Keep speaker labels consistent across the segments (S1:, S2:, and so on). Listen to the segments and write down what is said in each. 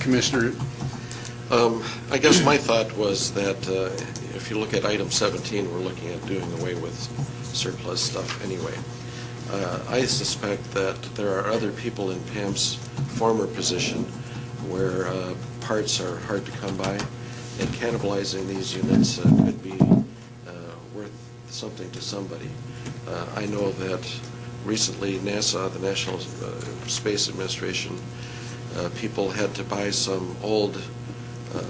S1: Commissioner, um, I guess my thought was that uh, if you look at item 17, we're looking at doing away with surplus stuff anyway. Uh, I suspect that there are other people in Pam's former position where uh, parts are hard to come by, and cannibalizing these units uh, could be uh, worth something to somebody. Uh, I know that recently NASA, the National uh, Space Administration, uh, people had to buy some old uh,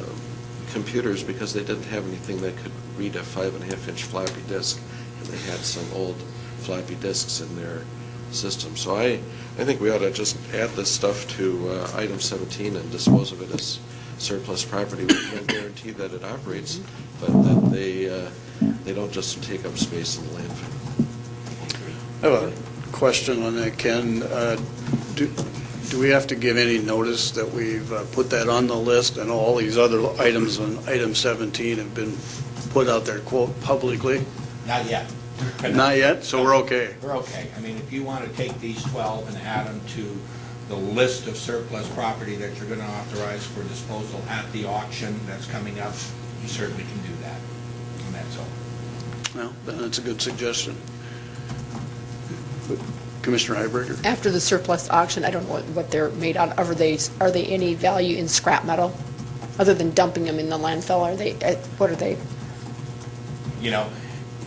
S1: computers because they didn't have anything that could read a five and a half inch floppy disk, and they had some old floppy disks in their system. So I, I think we ought to just add this stuff to uh, item 17 and dispose of it as surplus property with no guarantee that it operates, but that they, uh, they don't just take up space in the landfill.
S2: I have a question on that, Ken. Uh, Do do we have to give any notice that we've uh, put that on the list and all these other items on item 17 have been put out there, quote, publicly?
S3: Not yet.
S2: Not yet, so we're okay.
S3: We're okay. I mean, if you want to take these 12 and add them to the list of surplus property that you're going to authorize for disposal at the auction that's coming up, you certainly can do that. And that's all.
S2: Well, then that's a good suggestion. Commissioner Heiberger?
S4: After the surplus auction, I don't know what they're made out of. Are they, are they any value in scrap metal? Other than dumping them in the landfill, are they, eh, what are they?
S3: You know,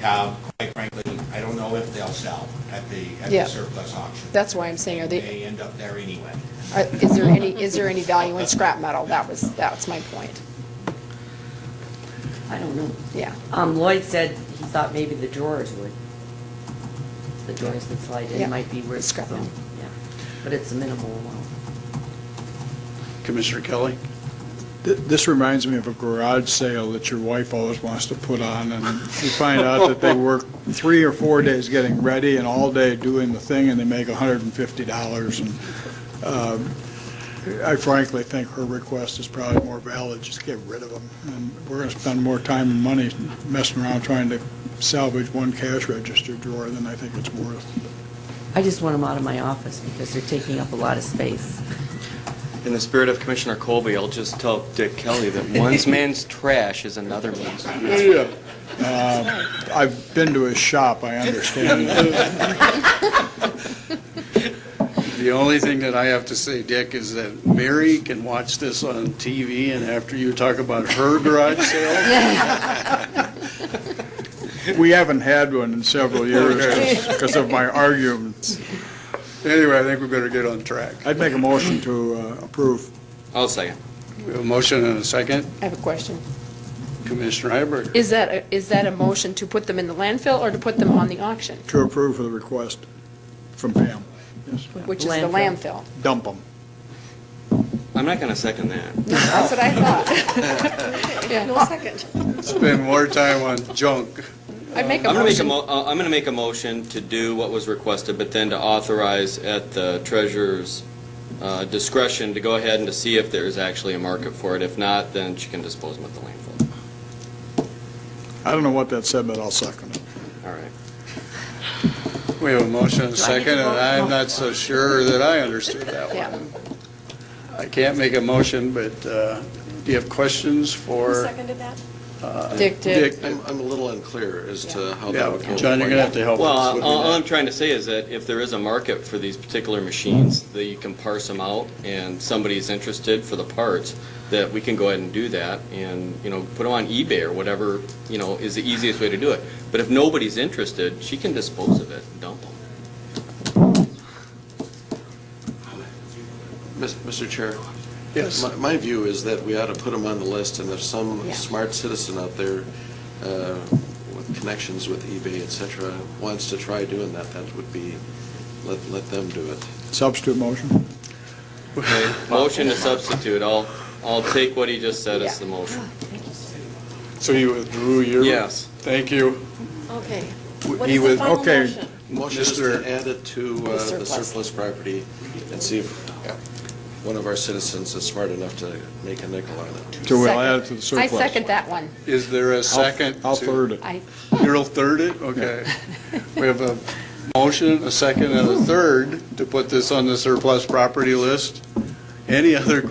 S3: uh, quite frankly, I don't know if they'll sell at the, at the
S4: Yeah.
S3: surplus auction.
S4: That's why I'm saying, are they,
S3: They end up there anyway.
S4: are- is there any, is there any value in scrap metal? That was, that's my point.
S5: I don't know.
S4: Yeah.
S5: Um, Lloyd said he thought maybe the drawers would. The drawers that slide
S4: Yeah.
S5: in might be worth
S4: Scrap
S5: some,
S4: them.
S5: yeah. But it's a minimal amount.
S2: Commissioner Kelly?
S6: Th- This reminds me of a garage sale that your wife always wants to put on, and you find out that they work three or four days getting ready and all day doing the thing, and they make $150. And um, I frankly think her request is probably more valid, just get rid of them. And we're going to spend more time and money messing around trying to salvage one cash register drawer than I think it's worth.
S5: I just want them out of my office because they're taking up a lot of space.
S7: In the spirit of Commissioner Colby, I'll just tell Dick Kelly that one man's trash is another man's.
S6: Yeah. Uh, I've been to his shop, I understand that.
S2: The only thing that I have to say, Dick, is that Mary can watch this on TV, and after you talk about her garage sale,
S6: We haven't had one in several years because of my arguments.
S2: anyway, I think we better get on track.
S6: I'd make a motion to uh, approve.
S7: I'll second.
S2: We have a motion and a second.
S4: I have a question.
S2: Commissioner Heiberger?
S4: Is that, a- is that a motion to put them in the landfill or to put them on the auction,
S6: To approve for the request from Pam. Yes.
S4: which is the landfill?
S5: Landfill.
S6: Dump them.
S7: I'm not going to second that.
S4: That's what I thought. No second.
S2: Spend more time on junk.
S4: I'd make a
S7: I'm going to make a,
S4: motion.
S7: mo- uh, I'm going to make a motion to do what was requested, but then to authorize at the treasurer's uh, discretion to go ahead and to see if there's actually a market for it. If not, then she can dispose them at the landfill.
S6: I don't know what that said, but I'll second it.
S7: All right.
S2: We have a motion and a
S5: Do I need to
S2: second, and
S5: vote?
S2: I'm not so sure that I understood that
S4: Yeah.
S2: one. I can't make a motion, but uh, do you have questions for uh,
S8: seconded that?
S4: Dick did.
S2: Dick?
S1: I'm, I'm a little unclear as to how that
S2: Yeah,
S1: would go.
S2: John, you're going to have to help
S7: Well,
S2: us.
S7: all
S2: with
S7: all
S2: that.
S7: I'm trying to say is that if there is a market for these particular machines, that you can parse them out, and somebody's interested for the parts, that we can go ahead and do that, and, you know, put them on eBay or whatever, you know, is the easiest way to do it. But if nobody's interested, she can dispose of it, and dump them.
S1: Mis- Mr. Chair?
S2: Yes.
S1: My- My view is that we ought to put them on the list, and if some
S4: Yeah.
S1: smart citizen out there uh, with connections with eBay, et cetera, wants to try doing that, that would be, let let them do it.
S6: Substitute motion?
S7: Motion to substitute, I'll, I'll take what he just said as the motion.
S2: So you withdrew your?
S7: Yes.
S2: Thank you.
S8: Okay.
S2: W-
S8: What
S2: he
S8: is the
S2: was-
S8: final
S6: okay.
S8: motion?
S1: Motion is
S2: Mr.
S1: to add it to uh, the surplus property and see if one of our citizens is smart enough to make a nickel on it.
S6: So we'll
S4: Second.
S6: add it to the surplus.
S4: I second that one.
S2: Is there a
S6: I'll-
S2: second?
S6: I'll
S2: to-
S6: third it.
S4: I,
S2: You'll third it? Okay. We have a motion, a second, and a third to put this on the surplus property list. Any other